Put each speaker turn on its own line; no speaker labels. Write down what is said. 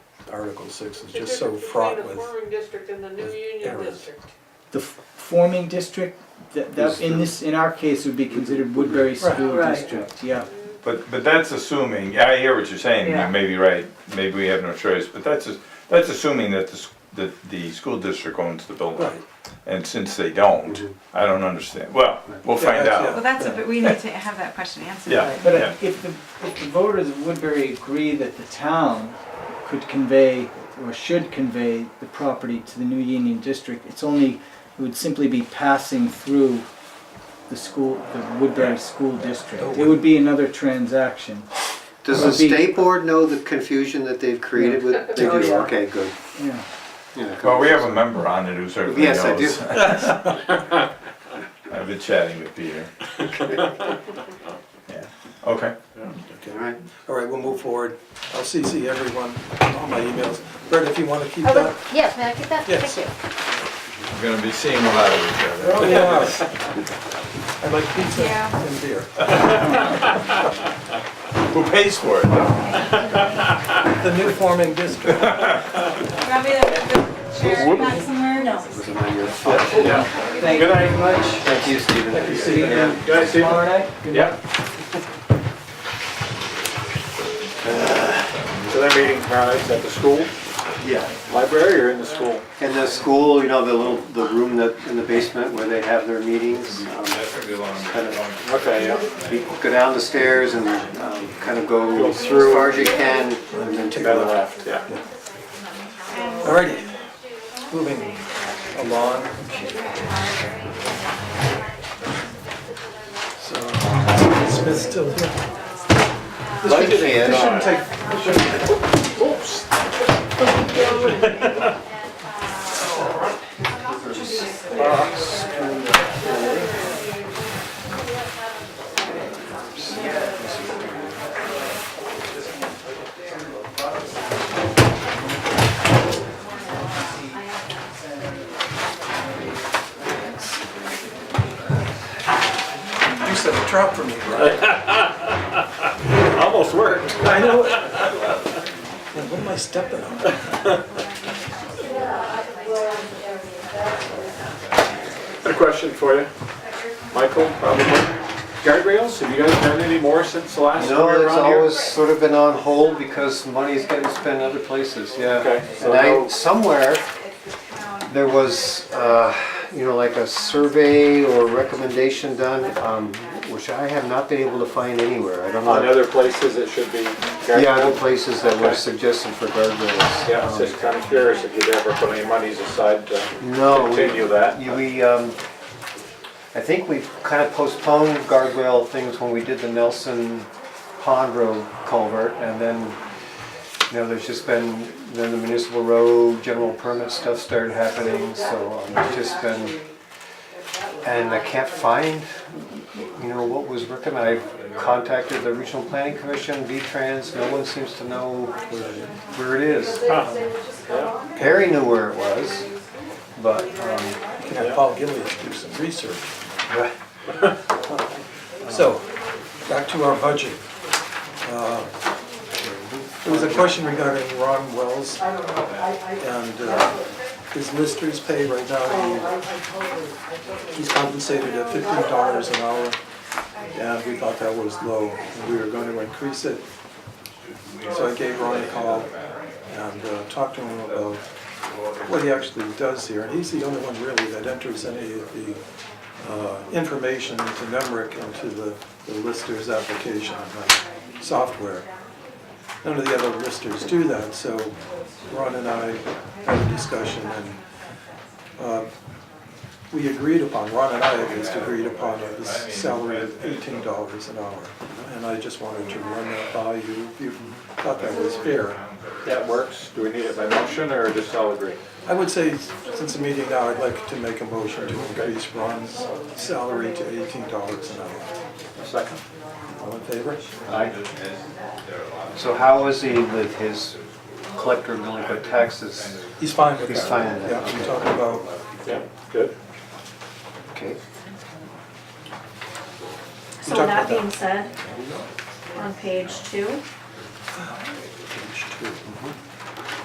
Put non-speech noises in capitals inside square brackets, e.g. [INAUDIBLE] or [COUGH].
Article six is
The
just so
difference
fraught with.
between the farming district and the new
with
union
errors.
district.
The f- forming district, that, that, in this, in our case, would be considered Woodbury School
Right.
District, yeah.
But, but that's assuming, yeah, I hear what you're saying,
Yeah.
you may be right, maybe we have no choice, but that's, as- that's assuming that the, s- that the school district owns the building.
Right.
And since they don't, I don't understand, well, we'll
Yeah,
find
that's-
out.
Well, that's, a bit- we need to have that question answered.
Yeah.
but-
But if if the, if the voters of Woodbury agree that the town could convey or should convey the property to the new Union District, it's only, it would simply be passing through the school, the Woodbury School District. It would be another transaction.
Does
Well,
the
the-
state board know the confusion that they've created with?
[LAUGHS]
They
Oh,
do,
yeah.
okay, good.
Yeah,
Yeah.
Well, we have a member on it who certainly knows.
Yes, I do.
[LAUGHS] I've been chatting with [LAUGHS] Peter. Yeah, okay.
All right.
All right, we'll move forward. I'll CC everyone, all my emails. Brett, if you want to keep
I will,
that.
yeah, may I get that?
Yes.
Thank you.
We're gonna be seeing a lot of each other.
Oh, yeah. I like pizza
Yeah.
and beer.
Who pays for it?
The new forming district.
Do you want me to put the chair back somewhere? No.
Was it on your phone?
thank you very much.
Thank you, Stephen.
See you
Yeah.
tomorrow night. Good night.
So they're meeting tomorrow night at the school,
Yeah.
library or in the school?
And the school, you know, the little, the room that, in the basement where they have their meetings, um,
That's gonna be a long,
kind of,
Okay, yeah.
you go down the stairs and, um, kind of go
Go
as
through.
far as you can. and then
To the left, yeah.
All righty, moving along. So, is Smith still here?
Like it is.
Shouldn't take,
Oops.
you said a drop for me, right?
[LAUGHS] Almost worked.
I know. Man, what am I stepping on?
Got a question for you. Michael, probably. Guardrails, have you guys done any more since the last
No,
year
it's
around here?
always sort of been on hold because money's getting spent other places, yeah.
Okay, so
And I,
no-
somewhere, there was, uh, you know, like a survey or recommendation done, um, which I have not been able to find anywhere, I don't
On
know.
other places it should be
The other
guardrails?
places that were
Okay.
suggested for guardrails.
Yeah, it's
um,
just kind of curious if you'd ever put any monies aside to
No. we-
continue that.
Yeah, We, um, I think we kind of postponed guardrail things when we did the Nelson Pond Road culvert, and then, you know, there's just been, then the municipal road, general permit stuff started happening, so um, it's just been, and I can't find, you know, what was recommended. I contacted the Regional Planning Commission, V-Trans, no one seems to know where it is. Perry knew where it was, but, um,
You can have Paul Gillies do some research. So, back to our budget. Uh, There was a question regarding Ron Wells and uh, his listers pay right now. he- He's compensated at fifteen dollars an hour, and we thought that was low, and we were going to increase it. So I gave Ron a call and uh, talked to him about what he actually does here, and he's the only one really that enters any of the uh, information into NEMRIC into the the lister's application uh, software. None of the other listers do that, so Ron and I had a discussion and uh, we agreed upon, Ron and I at least agreed upon a salary of eighteen dollars an hour. And I just wanted to run that by you, if you thought that was fair.
That works. Do we need it by motion or just all agree?
I would say, since the meeting now, I'd like to make a motion to increase Ron's salary to eighteen dollars an hour.
A second?
All in favor?
So how is he with his collector of delinquent taxes?
He's fine with that.
He's fine with that,
Yeah, I'm
okay.
talking about,
Yeah, good.
Okay.
So that
talked about that.
being said, on page two,